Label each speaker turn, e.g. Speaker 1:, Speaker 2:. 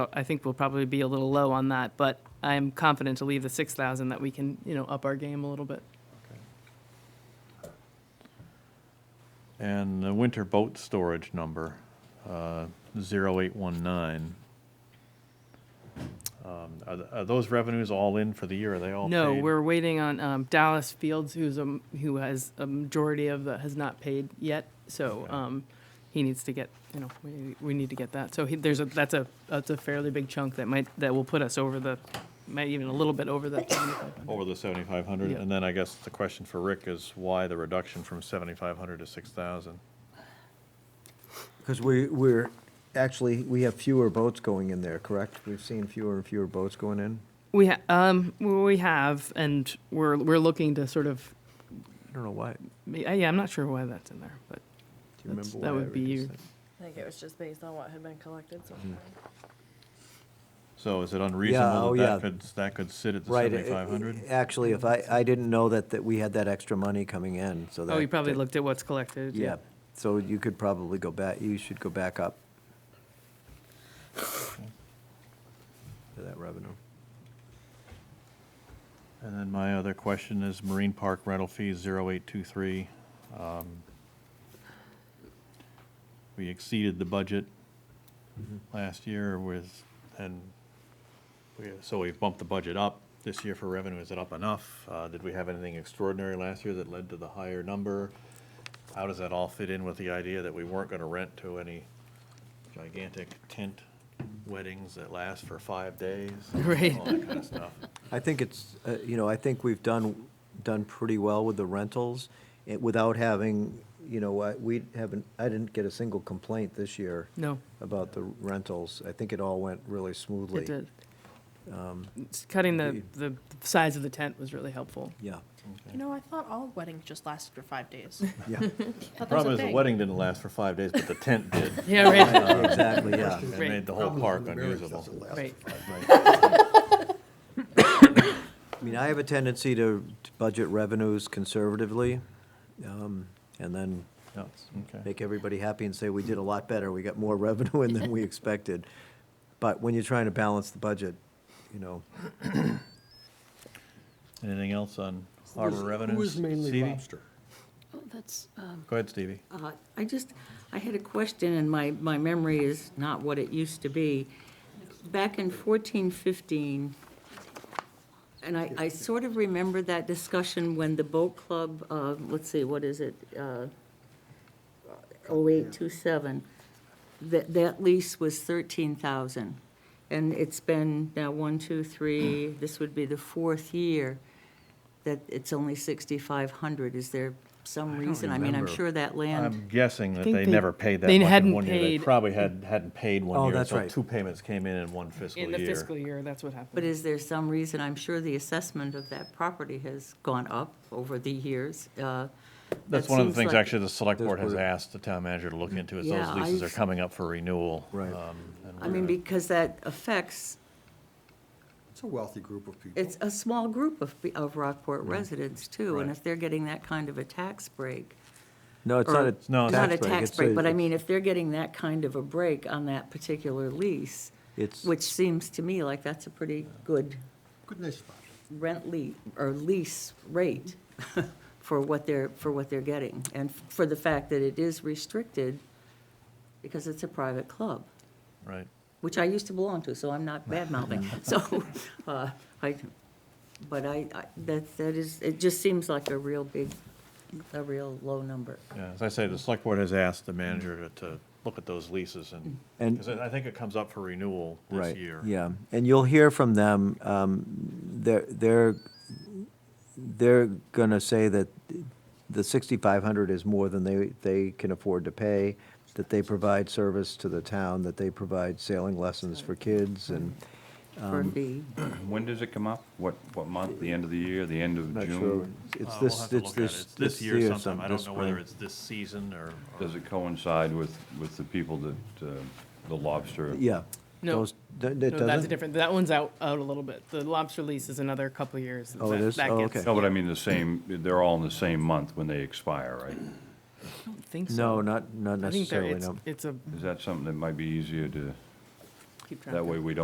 Speaker 1: I think we'll probably be a little low on that, but I'm confident to leave the 6,000 that we can, you know, up our game a little bit.
Speaker 2: And the winter boat storage number, uh, 0819. Um, Are th- are those revenues all in for the year? Are they all paid?
Speaker 1: No, we're waiting on um, Dallas Fields, who's a, m- who has a majority of the has not paid yet. So um, he needs to get you know we, need- we need to get that. So he, there's a that's a that's a fairly big chunk that might that will put us over the might even a little bit over that. 7,500.
Speaker 3: Oh.
Speaker 2: Over the 7,500?
Speaker 1: Yeah.
Speaker 2: And then I guess the question for Rick is why the reduction from 7,500 to 6,000?
Speaker 3: Because we, we're, actually, we have fewer boats going in there, correct? We've seen fewer and fewer boats going in?
Speaker 1: We ha- um we have and we're we're looking to sort of
Speaker 3: I don't know why. Do
Speaker 1: yeah I'm not sure why that's in there, but
Speaker 3: you
Speaker 1: That's-
Speaker 3: remember why?
Speaker 1: that
Speaker 3: I
Speaker 1: would be
Speaker 3: reduced
Speaker 1: your-
Speaker 3: that?
Speaker 4: I think it was just based on what had been collected so far.
Speaker 2: So is it
Speaker 3: Yeah,
Speaker 2: unreasonable
Speaker 3: oh,
Speaker 2: that
Speaker 3: yeah.
Speaker 2: that could, that could sit at the
Speaker 3: Right. it-
Speaker 2: 7,500?
Speaker 3: Actually, if I, I didn't know that, that we had that extra money coming in, so that.
Speaker 1: oh you probably
Speaker 3: that-
Speaker 1: looked at what's collected.
Speaker 3: Yeah, so you could probably go back, you should go back up to that revenue.
Speaker 2: And then my other question is Marine Park rental fee 0823. Um, We exceeded the budget last year with, and we, so we bumped the budget up this year for revenue. Is it up enough? Uh, Did we have anything extraordinary last year that led to the higher number? How does that all fit in with the idea that we weren't going to rent to any gigantic tent weddings that last for five days?
Speaker 1: Right.
Speaker 2: All that kind of stuff.
Speaker 3: I think it's, uh, you know, I think we've done, done pretty well with the rentals it- without having, you know, I- we haven't, I didn't get a single complaint this year
Speaker 1: No.
Speaker 3: about the rentals. I think it all went really smoothly.
Speaker 1: It did.
Speaker 3: Um,
Speaker 1: S- Cutting the, the size of the tent was really helpful.
Speaker 3: Yeah,
Speaker 4: You know, I thought all weddings just lasted for five days.
Speaker 3: yeah,
Speaker 2: The problem is the wedding didn't last for five days, but the tent did.
Speaker 1: Yeah, right,
Speaker 3: Uh, exactly, yeah.
Speaker 2: It
Speaker 1: Right.
Speaker 2: made the whole park unusable.
Speaker 1: right.
Speaker 3: I mean, I have a tendency to to budget revenues conservatively um, and then
Speaker 2: Yeah, okay.
Speaker 3: make everybody happy and say, we did a lot better. We got more revenue in than we expected. But when you're trying to balance the budget, you know,
Speaker 2: Anything else on
Speaker 5: Who
Speaker 2: harbor
Speaker 5: is-
Speaker 2: revenues?
Speaker 5: Who is mainly
Speaker 2: Stevie?
Speaker 5: lobster?
Speaker 6: Oh, that's, um,
Speaker 2: Go ahead, Stevie.
Speaker 6: uh, I just, I had a question, and my, my memory is not what it used to be. Back in fourteen fifteen, and I, I sort of remember that discussion when the boat club, uh, let's see, what is it? uh, Oh eight two seven, that, that lease was thirteen thousand. And it's been now one, two, three, this would be the fourth year that it's only sixty-five hundred. Is there some reason? I mean, I'm
Speaker 3: remember.
Speaker 6: sure that land.
Speaker 2: I'm guessing that
Speaker 1: think
Speaker 2: they
Speaker 1: they-
Speaker 2: never paid that
Speaker 1: they
Speaker 2: much in
Speaker 1: hadn't
Speaker 2: one year. They
Speaker 1: paid-
Speaker 2: probably had, hadn't paid one
Speaker 3: Oh,
Speaker 2: year,
Speaker 3: that's
Speaker 2: so
Speaker 3: right.
Speaker 2: two payments came in in one fiscal
Speaker 1: In the
Speaker 2: year.
Speaker 1: fiscal year, that's what
Speaker 6: But
Speaker 1: happened.
Speaker 6: is there some reason, I'm sure the assessment of that property has gone up over the years? uh,
Speaker 2: That's
Speaker 6: that
Speaker 2: one of the
Speaker 6: seems
Speaker 2: things,
Speaker 6: like-
Speaker 2: actually, the select
Speaker 3: Those
Speaker 2: board has
Speaker 3: were-
Speaker 2: asked the town manager to look into, is those
Speaker 6: Yeah,
Speaker 2: leases are
Speaker 6: I've-
Speaker 2: coming up for renewal.
Speaker 3: Right.
Speaker 2: um, and
Speaker 6: I
Speaker 2: we're
Speaker 6: mean,
Speaker 2: gonna-
Speaker 6: because that affects,
Speaker 5: It's a wealthy group of people.
Speaker 6: it's a small group of, pe- of Rockport residents too. And
Speaker 2: Mm-hmm. Right.
Speaker 6: if they're getting that kind of a tax break.
Speaker 3: no, it's
Speaker 6: or-
Speaker 3: not a tax break.
Speaker 2: No,
Speaker 6: it's Not a
Speaker 3: it's
Speaker 6: tax break, but I mean, if they're getting that kind of a break on that particular lease,
Speaker 3: It's,
Speaker 6: which seems to me like that's a pretty good
Speaker 5: Good nice spot.
Speaker 6: rent le, or lease rate for what they're, for what they're getting, and for the fact that it is restricted because it's a private club,
Speaker 2: Right.
Speaker 6: which I used to belong to, so I'm not bad mouthing, so, uh, I, but I, I, that, that is, it just seems like a real big, a real low number.
Speaker 2: Yeah, as I say, the select board has asked the manager to, to look at those leases and,
Speaker 3: And-
Speaker 2: because I I think it comes up for renewal this
Speaker 3: right,
Speaker 2: year.
Speaker 3: yeah. And you'll hear from them, um, they're, they're, they're gonna say that the sixty-five hundred is more than they, they can afford to pay, that they provide service to the town, that they provide sailing lessons for kids and.
Speaker 6: For a fee,
Speaker 7: When does it come up? What, what month? The end of the year, the end of
Speaker 3: Not sure.
Speaker 7: June?
Speaker 3: It's
Speaker 2: Uh, we'll have
Speaker 3: this,
Speaker 2: to look
Speaker 3: it's
Speaker 2: at it.
Speaker 3: this.
Speaker 2: It's This year sometime, I
Speaker 3: this
Speaker 2: don't know whether
Speaker 3: spring.
Speaker 2: it's this season or. or-
Speaker 7: Does it coincide with, with the people that, uh, the lobster?
Speaker 3: Yeah.
Speaker 1: No.
Speaker 3: Those- th- It
Speaker 1: No, that's a
Speaker 3: doesn't?
Speaker 1: different, that one's out, out a little bit. The lobster lease is another couple of years.
Speaker 3: Oh, it
Speaker 1: That-
Speaker 3: is?
Speaker 1: that
Speaker 3: Oh,
Speaker 1: gets-
Speaker 3: okay.
Speaker 7: No, but I mean the same, they're all in the same month when they expire, right?
Speaker 1: I don't think so.
Speaker 3: No, not, not
Speaker 1: I think there,
Speaker 3: necessarily,
Speaker 1: it's,
Speaker 3: no.
Speaker 1: it's a,
Speaker 7: Is that something that might be easier to,
Speaker 1: keep track
Speaker 7: That
Speaker 1: of.
Speaker 7: way we don't